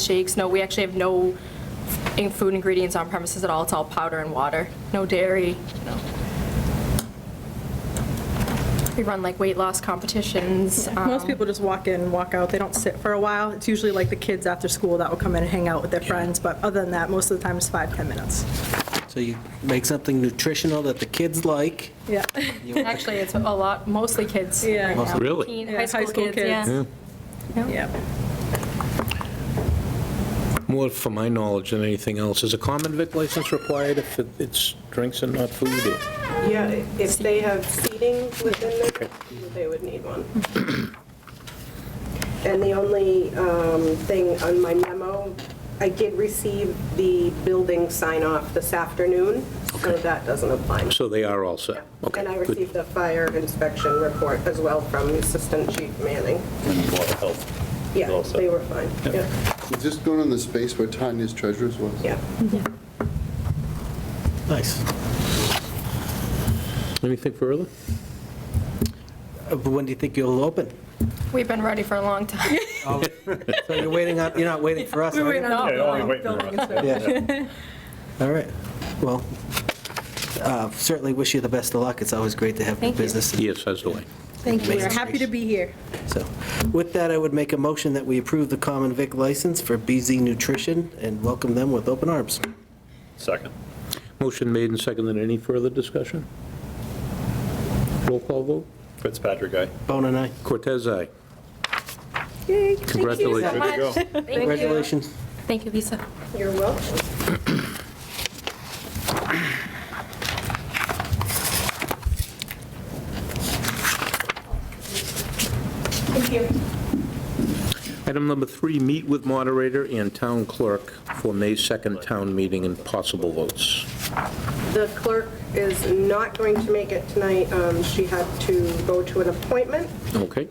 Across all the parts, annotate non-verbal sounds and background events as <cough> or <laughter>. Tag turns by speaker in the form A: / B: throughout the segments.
A: shakes, no, we actually have no in- food ingredients on premises at all. It's all powder and water, no dairy, no. We run like weight loss competitions. Um,
B: Most people just walk in, walk out, they don't sit for a while. It's usually like the kids after school that will come in and hang out with their friends, but other than that, most of the time it's five, 10 minutes.
C: So you make something nutritional that the kids like.
B: Yeah.
A: Actually, it's a lot, mostly kids.
B: Yeah.
A: right now.
D: Really?
A: Teen-
B: Yeah,
A: High school kids, yeah.
B: Yeah.
D: More for my knowledge than anything else, is a common vic license required if it- it's drinks and not food? or-
E: Yeah, if they have seating within their, they would need one. And the only um, thing on my memo, I did receive the building sign-off this afternoon, so that doesn't apply.
D: So they are all set? Okay,
E: And I
D: good.
E: received a fire inspection report as well from Assistant Chief Manning.
F: and Board of Health. is
E: Yeah,
F: all set.
E: they were fine. Yeah,
G: Is this going in the space where Tanya's treasures was?
E: yeah.
C: Nice.
D: Anything further?
C: Uh, When do you think you'll open?
A: We've been ready for a long
C: <laughs>
A: time.
C: Oh, So you're waiting on, you're not
A: <laughs>
C: waiting for us, are you?
A: No.
C: Yeah. All right. Well, uh, certainly wish you the best of luck. It's always great to have new
A: Thank you.
C: business.
D: Yes, as do I.
B: Thank you, we're happy to be here.
C: So with that, I would make a motion that we approve the common vic license for BZ Nutrition and welcome them with open arms.
F: Second.
D: Motion made and seconded. Any further discussion? Roll call vote?
F: Fitzpatrick, aye.
C: Bone and I,
D: Cortez, aye.
B: Yay.
D: Congratulations.
F: There you go.
C: congratulations.
A: Thank you, Lisa.
E: You're welcome.
D: Item number three, meet with moderator and town clerk for May 2nd town meeting and possible votes.
E: The clerk is not going to make it tonight. Um, She had to go to an appointment.
D: Okay?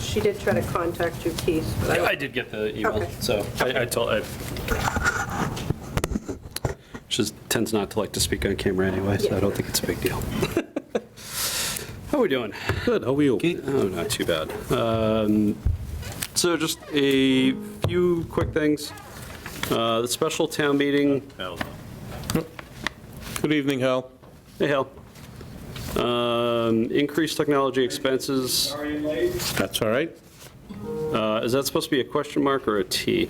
E: She did try to contact you, Keith, but I
F: I
E: don't
F: I did get the email,
E: Okay.
F: so I I told, I... She tends not to like to speak on camera anyway, so I don't think it's a big deal. <laughs> How we doing?
D: Good, how are you?
F: Oh, not too bad. Um, So just a few quick things. Uh, The special town meeting.
D: Good evening, Hal.
F: Hey, Hal. Um, Increased technology expenses.
D: That's all right?
F: Uh, Is that supposed to be a question mark or a T?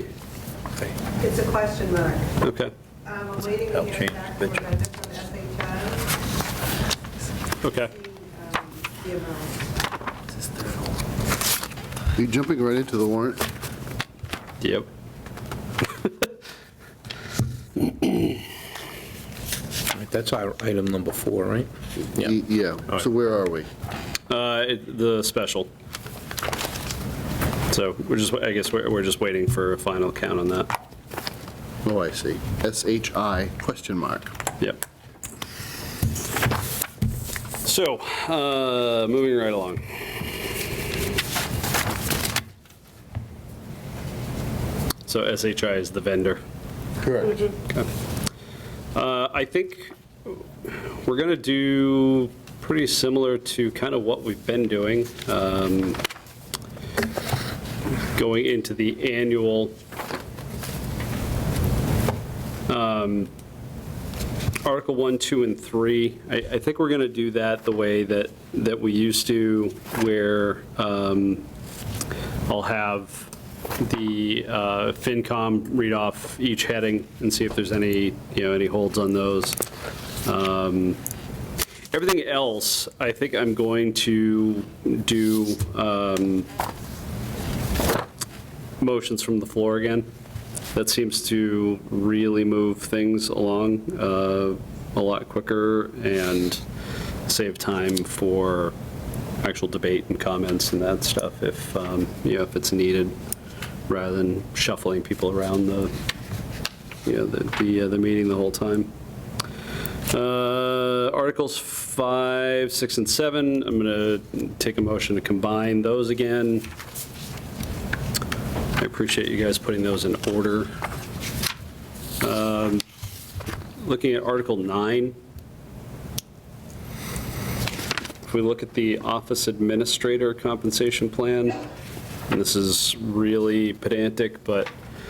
H: It's a question mark.
F: Okay,
H: Um, I'm waiting to hear back from Brenda from SHI,
F: okay.
H: um, the amount.
G: Are you jumping right into the warrant?
F: Yep.
D: All right, That's our item number four, right? Yeah.
G: Y- Yeah, so where are we?
F: Uh, it- The special. So we're just, I guess we're we're just waiting for a final count on that.
G: Oh, I see. S-H-I question mark.
F: Yep. So, uh, moving right along. So SHI is the vendor.
G: Correct.
F: Uh, I think we're going to do pretty similar to kind of what we've been doing, um, going into the annual. um, Article 1, 2, and 3, I, I think we're going to do that the way that, that we used to, where um, I'll have the uh, FinCom read off each heading and see if there's any, you know, any holds on those. Um, Everything else, I think I'm going to do um, motions from the floor again. That seems to really move things along uh, a lot quicker and save time for actual debate and comments and that stuff if, um, you know, if it's needed, rather than shuffling people around the, you know, the, the uh, the meeting the whole time. Uh, Articles 5, 6, and 7, I'm going to take a motion to combine those again. I appreciate you guys putting those in order. Um, Looking at Article 9, if we look at the office administrator compensation plan, and this is really pedantic, but